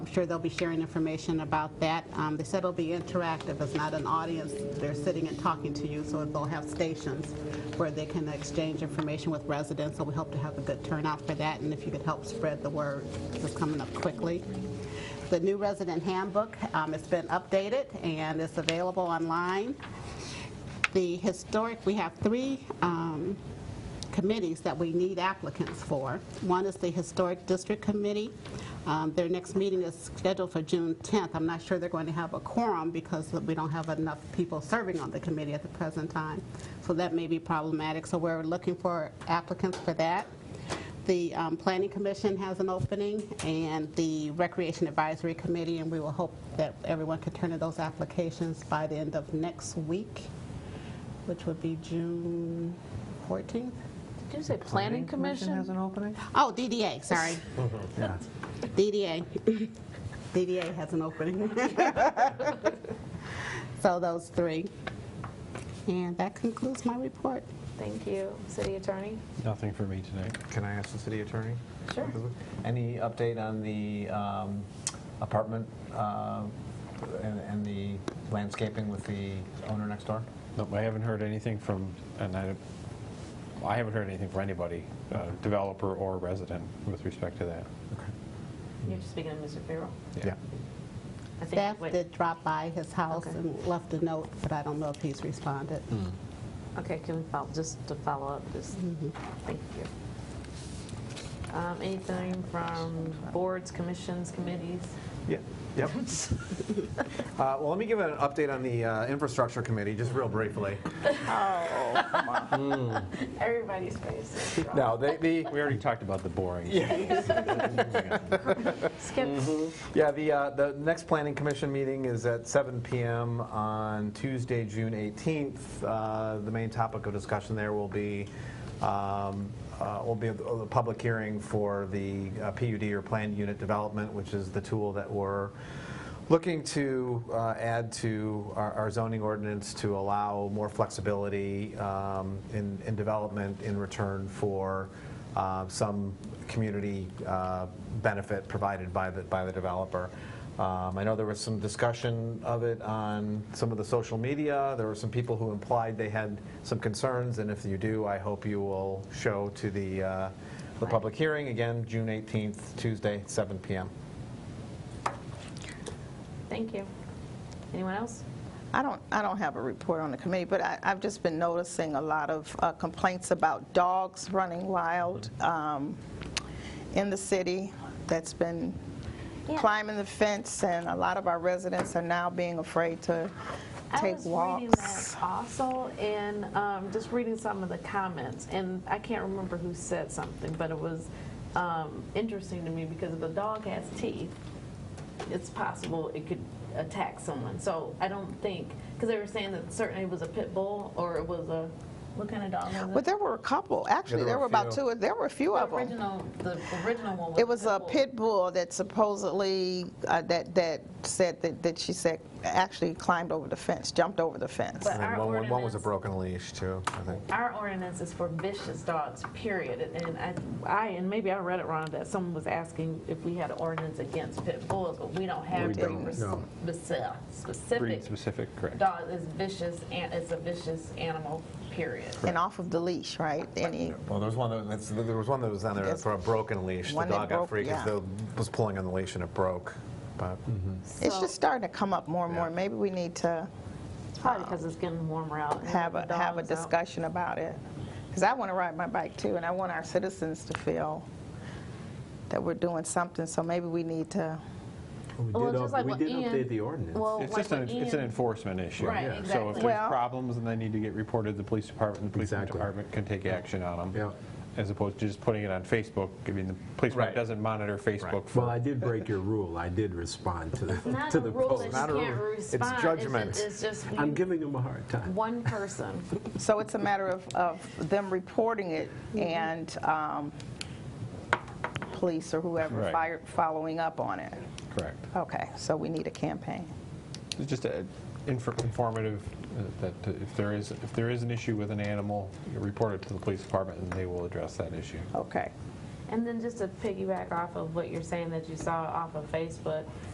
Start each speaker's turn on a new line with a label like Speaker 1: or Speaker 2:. Speaker 1: I'm sure they'll be sharing information about that. Um, They said it'll be interactive, it's not an audience, they're sitting and talking to you, so they'll have stations where they can exchange information with residents, so we hope to have a good turnout for that, and if you could help spread the word, 'cause it's coming up quickly. The new resident handbook, um, it's been updated, and it's available online. The historic, we have three um, committees that we need applicants for. One is the Historic District Committee. Um, Their next meeting is scheduled for June 10th. I'm not sure they're going to have a quorum because we don't have enough people serving on the committee at the present time, so that may be problematic. So we're looking for applicants for that. The um, Planning Commission has an opening, and the Recreation Advisory Committee, and we will hope that everyone can turn in those applications by the end of next week, which would be June 14th.
Speaker 2: Did you say planning
Speaker 3: has
Speaker 2: commission?
Speaker 3: an opening?
Speaker 1: Oh, DDA, sorry.
Speaker 3: Yeah.
Speaker 1: DDA. DDA has an opening. So those three. And that concludes my report.
Speaker 2: Thank you, city attorney.
Speaker 4: Nothing for me tonight.
Speaker 3: Can I ask the city attorney?
Speaker 2: Sure.
Speaker 3: Any update on the um, apartment uh, and and the landscaping with the owner next door?
Speaker 4: Nope, I haven't heard anything from, and I, I haven't heard anything from anybody, uh, developer or resident, with respect to that.
Speaker 5: You're speaking of Mr. Farrell?
Speaker 3: Yeah.
Speaker 5: I think-
Speaker 1: Staff
Speaker 5: wait,
Speaker 1: did drop by his house
Speaker 5: Okay.
Speaker 1: and left a note, but I don't know if he's responded.
Speaker 5: Okay, can we follow, just to follow up, just,
Speaker 2: Mm-hmm.
Speaker 5: thank you. Um, Anything from boards, commissions, committees?
Speaker 3: Yeah, yep. Uh, Well, let me give an update on the uh, infrastructure committee, just real briefly.
Speaker 5: Everybody's faces.
Speaker 3: No, they- the,
Speaker 4: We already talked about the boring. Yeah.
Speaker 5: Skip.
Speaker 2: Mm-hmm.
Speaker 3: Yeah, the, uh, the next planning commission meeting is at 7 PM on Tuesday, June 18th. Uh, The main topic of discussion there will be, um, uh, will be the the public hearing for the uh, PUD or planned unit development, which is the tool that we're looking to uh, add to our our zoning ordinance to allow more flexibility um, in, in development in return for uh, some community uh, benefit provided by the, by the developer. Um, I know there was some discussion of it on some of the social media. There were some people who implied they had some concerns, and if you do, I hope you will show to the, uh, the public hearing, again, June 18th, Tuesday, 7 PM.
Speaker 5: Thank you. Anyone else?
Speaker 6: I don't, I don't have a report on the committee, but I, I've just been noticing a lot of uh, complaints about dogs running wild um, in the city that's been
Speaker 5: Yeah.
Speaker 6: climbing the fence, and a lot of our residents are now being afraid to
Speaker 5: I
Speaker 6: take
Speaker 5: was reading
Speaker 6: walks.
Speaker 5: that also, and um, just reading some of the comments, and I can't remember who said something, but it was um, interesting to me because if a dog has teeth, it's possible it could attack someone. So I don't think because they were saying that certainly it was a pit bull or it was a what kind of dog was it?
Speaker 6: But there were a couple, actually,
Speaker 3: there
Speaker 6: there
Speaker 3: were
Speaker 6: were
Speaker 3: a
Speaker 6: about
Speaker 3: few.
Speaker 6: two, there were a few
Speaker 5: the
Speaker 6: of them.
Speaker 5: original, the original one. Was
Speaker 6: It was
Speaker 5: bull.
Speaker 6: a pit bull that supposedly, uh, that, that said, that that she said, actually climbed over the fence, jumped over the fence.
Speaker 5: But
Speaker 3: And then
Speaker 5: our
Speaker 3: one- One was a
Speaker 5: ordinance-
Speaker 3: broken leash, too, I think.
Speaker 5: Our ordinance is for vicious dogs, period. And I, I, and maybe I read it wrong, that someone was asking if we had an ordinance against pit bulls, but we don't have
Speaker 4: We
Speaker 5: the
Speaker 4: don't,
Speaker 5: res-
Speaker 4: no.
Speaker 5: speci-
Speaker 4: Breed
Speaker 5: specific
Speaker 4: specific, correct.
Speaker 5: dog is vicious, and it's a vicious animal, period.
Speaker 6: And off of the leash, right? Any,
Speaker 3: Well, there was one that, that's- there was one that was on there
Speaker 6: Yes.
Speaker 3: for a broken leash. The
Speaker 6: One that
Speaker 3: dog got
Speaker 6: broke,
Speaker 3: free because
Speaker 6: yeah.
Speaker 3: it was pulling on the leash and it broke. But
Speaker 6: It's
Speaker 5: So-
Speaker 6: just starting to come up more and more.
Speaker 3: Yeah.
Speaker 6: Maybe we need to
Speaker 5: It's probably because it's getting warmer out. and
Speaker 6: have
Speaker 5: the
Speaker 6: a, have a
Speaker 5: dogs out.
Speaker 6: discussion about it. Because I want to ride my bike too, and I want our citizens to feel that we're doing something. So maybe we need to,
Speaker 7: We
Speaker 5: Well,
Speaker 7: did,
Speaker 5: just like
Speaker 7: up- we
Speaker 5: what
Speaker 7: did
Speaker 5: Ian-
Speaker 7: update the ordinance.
Speaker 5: Well,
Speaker 4: It's
Speaker 5: Oh, like
Speaker 4: just, an
Speaker 5: what
Speaker 4: it's an
Speaker 5: Ian-
Speaker 4: enforcement issue.
Speaker 5: Right,
Speaker 4: Yeah. So if
Speaker 5: exactly.
Speaker 4: there's
Speaker 6: Well-
Speaker 4: problems and they need to get reported to the police department, the police
Speaker 7: Exactly.
Speaker 4: department can take action on them.
Speaker 7: Yeah.
Speaker 4: As opposed to just putting it on Facebook. I mean, the police
Speaker 3: Right.
Speaker 4: department doesn't monitor Facebook
Speaker 7: Well,
Speaker 4: for
Speaker 7: I did break your rule. I did respond to the,
Speaker 5: Not
Speaker 7: to
Speaker 5: a
Speaker 7: the
Speaker 5: rule that
Speaker 7: post.
Speaker 5: you
Speaker 3: Not a
Speaker 5: can't
Speaker 3: rule. It's
Speaker 5: respond. ju-
Speaker 3: judgment.
Speaker 5: It's just
Speaker 7: I'm giving them a hard time.
Speaker 5: one person.
Speaker 6: so it's a matter of, of them reporting it
Speaker 5: Mm-hmm.
Speaker 6: and um, police or whoever
Speaker 4: Right.
Speaker 6: fire- following up on it.
Speaker 4: Correct.
Speaker 6: Okay, so we need a campaign.
Speaker 4: It's just a infor- informative uh, that uh, if there is, if there is an issue with an animal, you report it to the police department and they will address that issue.
Speaker 6: Okay.
Speaker 5: And then just to piggyback off of what you're saying that you saw off of Facebook,